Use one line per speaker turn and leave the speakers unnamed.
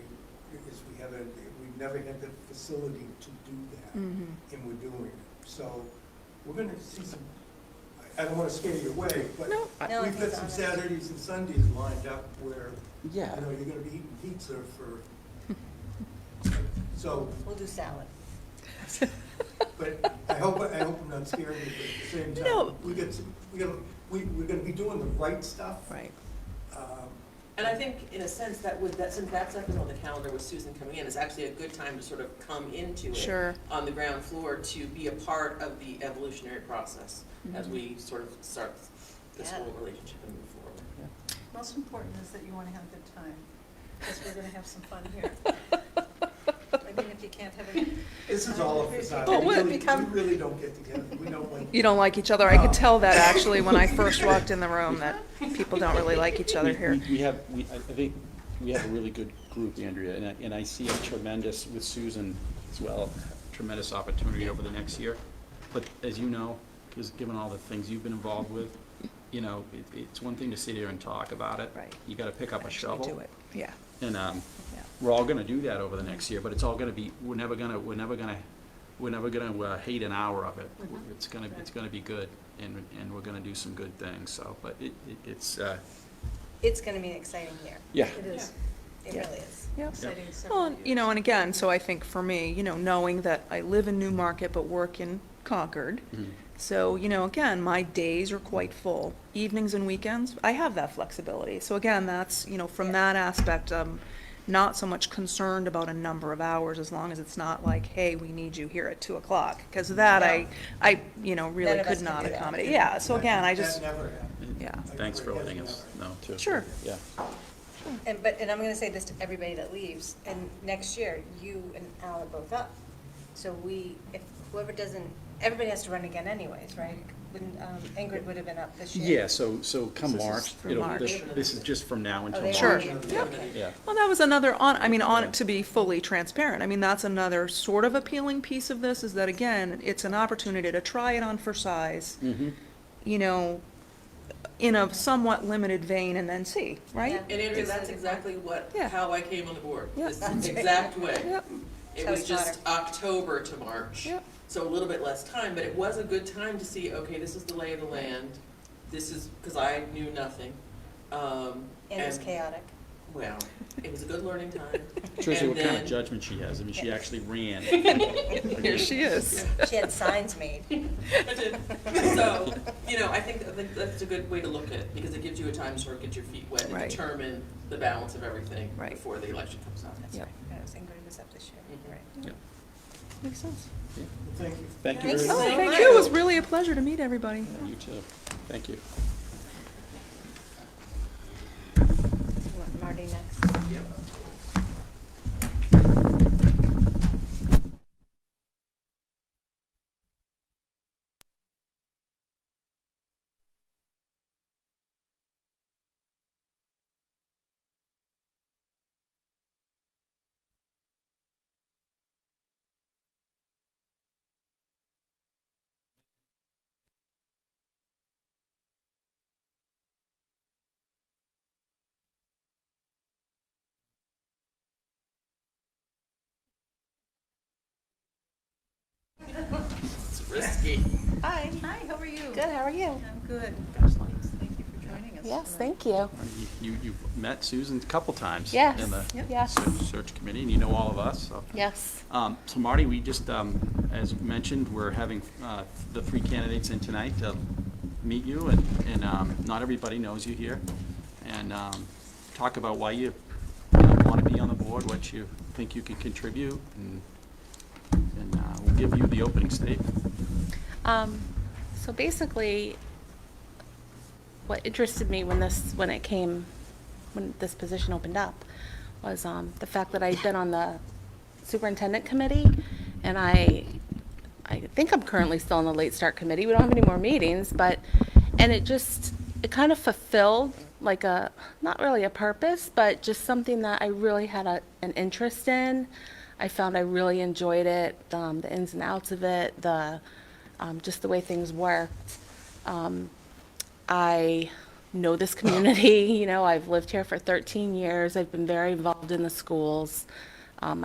never, we've never had the facility to do that,
Mhm.
and we're doing it. So we're gonna see some, I I don't wanna scare you away, but
No, I-
No,
we've got
it's
some
honest.
Saturdays and Sundays lined up where, you
Yeah,
know, you're gonna be eating pizza for, so,
We'll do salad.
but I hope, I hope I'm not scaring you, but at the same
No.
time, we get some, we got, we, we're gonna be doing the right stuff.
right.
Um,
And I think, in a sense, that would, that, since that stuff is on the calendar with Susan coming in, it's actually a good time to sort of come into it.
Sure.
On the ground floor to be a part of the evolutionary process
Mm-hmm.
as we sort of start this
Yeah.
whole relationship and move forward.
Most important is that you want to have a good time, because we're going to have some fun here. I mean, if you can't have a,
This is all a facade.
But
We
would it
really-
become-
We really don't get together, we don't like.
You don't like each other. I could
No.
tell that actually when I first walked in the room that people don't really like each other
We-
here.
we- We have, we, I I think, we have a really good group, Andrea, and I, and I see a tremendous, with Susan as well, tremendous opportunity over the next year. But as you know, just given all the things you've been involved with, you know, it, it's one thing to sit here and talk about it.
Right.
You gotta pick up a
Actually do
shovel.
it. Yeah,
And, um,
yeah.
we're all gonna do that over the next year, but it's all gonna be, we're never gonna, we're never gonna, we're never gonna uh, hate an hour of it.
Mm-hmm.
It's gonna, it's gonna be good, and, and we're gonna do some good things, so, but it, it- it's, uh,
It's gonna be an exciting year.
yeah.
it is
It
Yeah.
really is.
Yep.
exciting several
Well, and, you know, and again, so I think for me, you know, knowing that I live in Newmarket but work in Concord,
Mhm.
so, you know, again, my days are quite full. Evenings and weekends, I have that flexibility. So again, that's, you know, from
Yeah.
that aspect, um, not so much concerned about a number of hours as long as it's not like, hey, we need you here at two o'clock. Because that I, I, you know,
Mm-hmm. None
really
of
could
us can
not
do that.
accommodate. Yeah, so again, I just,
That never happened.
yeah.
Thanks for letting us know, too.
Sure.
Yeah.
And, but, and I'm gonna say this to everybody that leaves, and next year, you and Al are both up. So we, if whoever doesn't, everybody has to run again anyways, right? Wouldn't, um, Ingrid would have been up this year.
Yeah, so,
So
so come
this is
March,
through
it'll,
March.
this this is just from now until
they
March.
Oh, Sure.
are.
Yep.
Okay.
Yeah.
Well, that was another on, I mean, on, to be fully transparent, I mean, that's another sort of appealing piece of this, is that again, it's an opportunity to try it on for size,
Mhm.
you know, in a somewhat limited vein and then see, right?
Yeah.
And Andrea,
It's-
that's exactly what,
Yeah.
how I came on the board.
Yeah.
This is the exact way.
Yep,
It
Tell
was
us
just October to March.
yep,
So a little bit less time, but it was a good time to see, okay, this is the lay of the land. This is, because I knew nothing. Um,
And it was
and-
chaotic.
Well, it was a good learning time.
Tricia,
And
what kind
then-
of judgment she has, I mean, she actually ran.
here she is.
She had signs made.
I did. So, you know, I think, I think that's a good way to look at it, because it gives you a time to sort of get your feet wet and
Right.
determine the balance of everything
Right.
before the election comes up.
That's
Yep.
right. That was Ingrid was up this year,
Mhm.
right?
Yeah.
Makes sense.
Thank you.
Thank you
Thanks
very
Oh,
so
much.
thank
much.
you, it was really a pleasure to meet everybody.
You too, thank you.
You want Marty next?
It's risky.
Hi. Hi, how are you?
Good, how are you?
I'm good. Gosh, thanks. Thank you for joining us.
Yes,
tonight.
thank you.
You, you- you've met Susan a couple times.
Yes,
In the
Yep.
yes,
se- search committee, and you know all of us, so.
yes.
Um, So Marty, we just, um, as mentioned, we're having uh, the three candidates in tonight to meet you, and and um, not everybody knows you here, and um, talk about why you want to be on the board, what you think you can contribute, and and, uh, we'll give you the opening statement.
Um, so basically, what interested me when this, when it came, when this position opened up, was, um, the fact that I'd been on the superintendent committee, and I, I think I'm currently still on the late start committee, we don't have any more meetings, but, and it just, it kind of fulfilled like a, not really a purpose, but just something that I really had a, an interest in. I found I really enjoyed it, um, the ins and outs of it, the, um, just the way things worked. Um, I know this community, you know, I've lived here for 13 years, I've been very involved in the schools. Um,